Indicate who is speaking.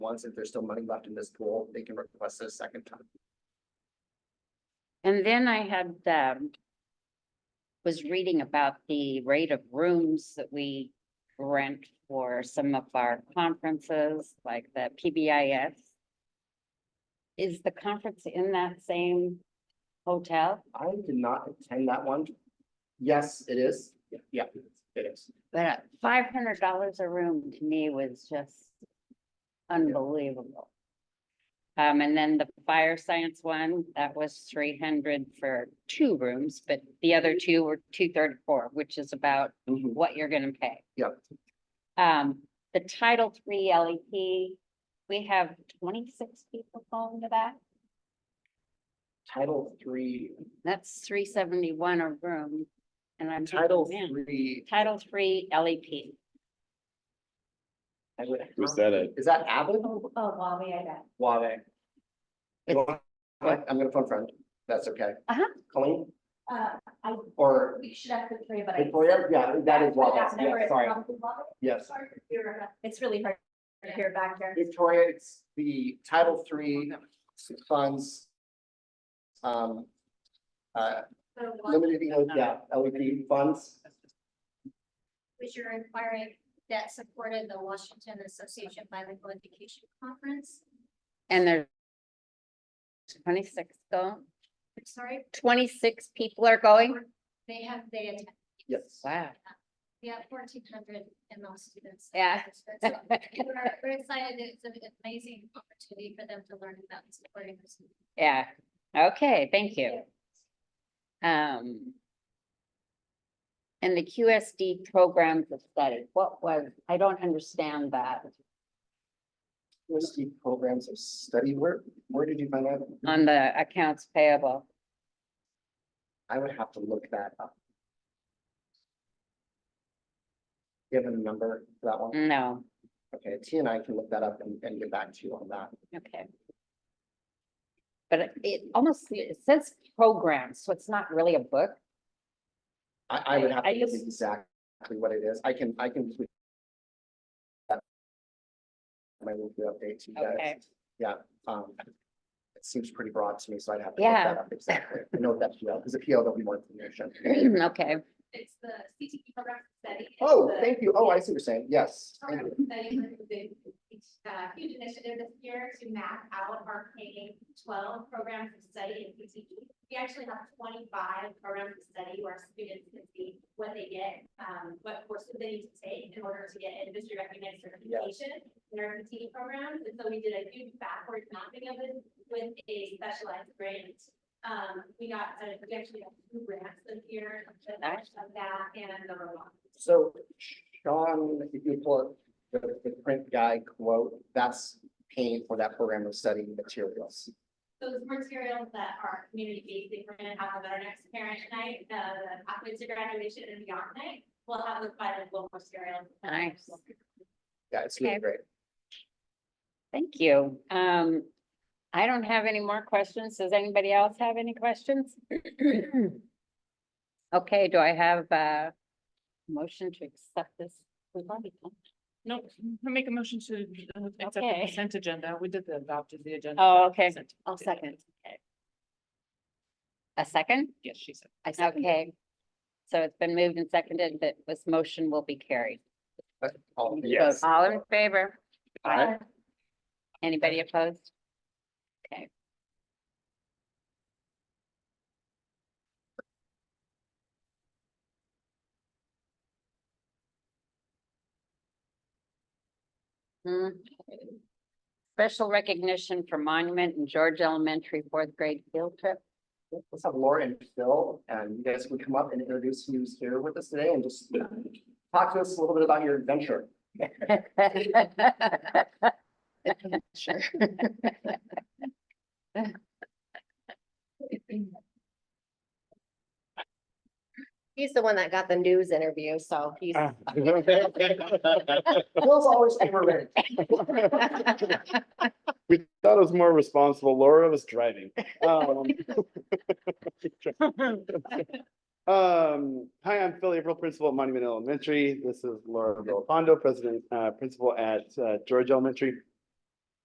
Speaker 1: once, if there's still money left in this pool, they can request it a second time.
Speaker 2: And then I had, um, was reading about the rate of rooms that we rent for some of our conferences, like the PBIS. Is the conference in that same hotel?
Speaker 1: I did not attend that one. Yes, it is. Yeah, Yeah, it is.
Speaker 2: But uh, five hundred dollars a room to me was just unbelievable. Um, and then the fire science one, that was three hundred for two rooms, but the other two were two thirty-four, which is about
Speaker 1: Mhm.
Speaker 2: what you're gonna pay.
Speaker 1: Yep.
Speaker 2: Um, the Title Three LEP, we have twenty-six people going to that.
Speaker 1: Title three,
Speaker 2: That's three seventy-one a room. And I'm. thinking,
Speaker 1: title
Speaker 2: Oh, man,
Speaker 1: three,
Speaker 2: Title Three E LEP.
Speaker 1: I would.
Speaker 3: Was that a,
Speaker 1: Is that Abbott?
Speaker 2: Oh, wow, yeah, that.
Speaker 1: Wade. You know what? I'm gonna phone friend. That's okay.
Speaker 2: Uh-huh.
Speaker 1: Colleen
Speaker 4: Uh, I,
Speaker 1: or
Speaker 4: we should have the three, but I.
Speaker 1: Victoria? Yeah, that is Wade.
Speaker 4: That number
Speaker 1: Yeah,
Speaker 4: is
Speaker 1: sorry.
Speaker 4: probably Wabash.
Speaker 1: Yes.
Speaker 4: Sorry to hear, uh, It's really hard to hear back there.
Speaker 1: Victoria, it's the Title Three funds. Um. Uh,
Speaker 4: So what
Speaker 1: limited, yeah, LED funds.
Speaker 4: was your inquiry that supported the Washington Association of Bilingual Education Conference?
Speaker 2: And there's twenty-six go,
Speaker 4: I'm sorry,
Speaker 2: twenty-six people are going?
Speaker 4: they have, they attend,
Speaker 1: Yes.
Speaker 2: Wow.
Speaker 4: they have fourteen hundred ML students.
Speaker 2: Yeah.
Speaker 4: So We're we're excited, it's an amazing opportunity for them to learn about supporting this.
Speaker 2: Yeah, okay, thank you. Um. And the QSD programs of study, what was, I don't understand that
Speaker 1: Whiskey programs of study. Where, where did you find that?
Speaker 2: on the accounts payable.
Speaker 1: I would have to look that up. Give a number for that one.
Speaker 2: No,
Speaker 1: Okay, T and I can look that up and, and get back to you on that.
Speaker 2: okay. But it- it almost, it says programs, so it's not really a book.
Speaker 1: I, I would have
Speaker 2: I
Speaker 1: to look
Speaker 2: just-
Speaker 1: exactly what it is. I can, I can. tweet that. My weekly update to you
Speaker 2: Okay.
Speaker 1: guys. Yeah, um, it seems pretty broad to me, so I'd have to look
Speaker 2: Yeah.
Speaker 1: that up exactly. I know that PL, because the PL, there'll be more information.
Speaker 2: Okay,
Speaker 4: It's the CTE program study.
Speaker 1: Oh, thank you. Oh, I see what you're saying. Yes. thank
Speaker 4: program
Speaker 1: you.
Speaker 4: study group is a it's a huge initiative this year to map out our K twelve programs of study in PTE. We actually have twenty-five programs of study where students can see what they get, um, what courses they need to take in order to get industry recognized certification in our PTE programs. And so we did a huge backward mapping of it with a specialized grant. Um, we got, uh, we actually got two grants this year, the
Speaker 2: Nice.
Speaker 4: of that and the robot.
Speaker 1: So Sean, if you pull up the, the print guy quote, that's paying for that program of study materials.
Speaker 4: those materials that are community basic, we're gonna have at our next parent night, the the pathway to graduation and beyond night. We'll have those bilingual materials.
Speaker 2: Nice.
Speaker 1: Yeah, it's really
Speaker 2: Okay.
Speaker 1: great.
Speaker 2: thank you. Um, I don't have any more questions. Does anybody else have any questions? Okay, do I have a motion to accept this? We've already done-
Speaker 5: No, I make a motion to uh, accept the
Speaker 2: Okay.
Speaker 5: consent agenda. We did the adopted the agenda.
Speaker 2: Oh, okay.
Speaker 5: Consent
Speaker 2: I'll
Speaker 5: agenda.
Speaker 2: second. A second?
Speaker 5: Yes, she said.
Speaker 2: I second. Okay. So it's been moved and seconded that this motion will be carried.
Speaker 1: All in favor?
Speaker 3: Yes.
Speaker 2: All in favor?
Speaker 3: Aye.
Speaker 2: Anybody opposed? Okay. Hmm. Special recognition for monument in George Elementary fourth grade field trip.
Speaker 1: Let's have Laura and Phil, and you guys can come up and introduce who's here with us today and just talk to us a little bit about your adventure.
Speaker 2: Sure.
Speaker 6: He's the one that got the news interview, so he's.
Speaker 1: Phil's always ever ready.
Speaker 3: We thought it was more responsible. Laura was driving. Um, Um, hi, I'm Phil April, principal at Monument Elementary. This is Laura Villapando, president, uh, principal at, uh, George Elementary.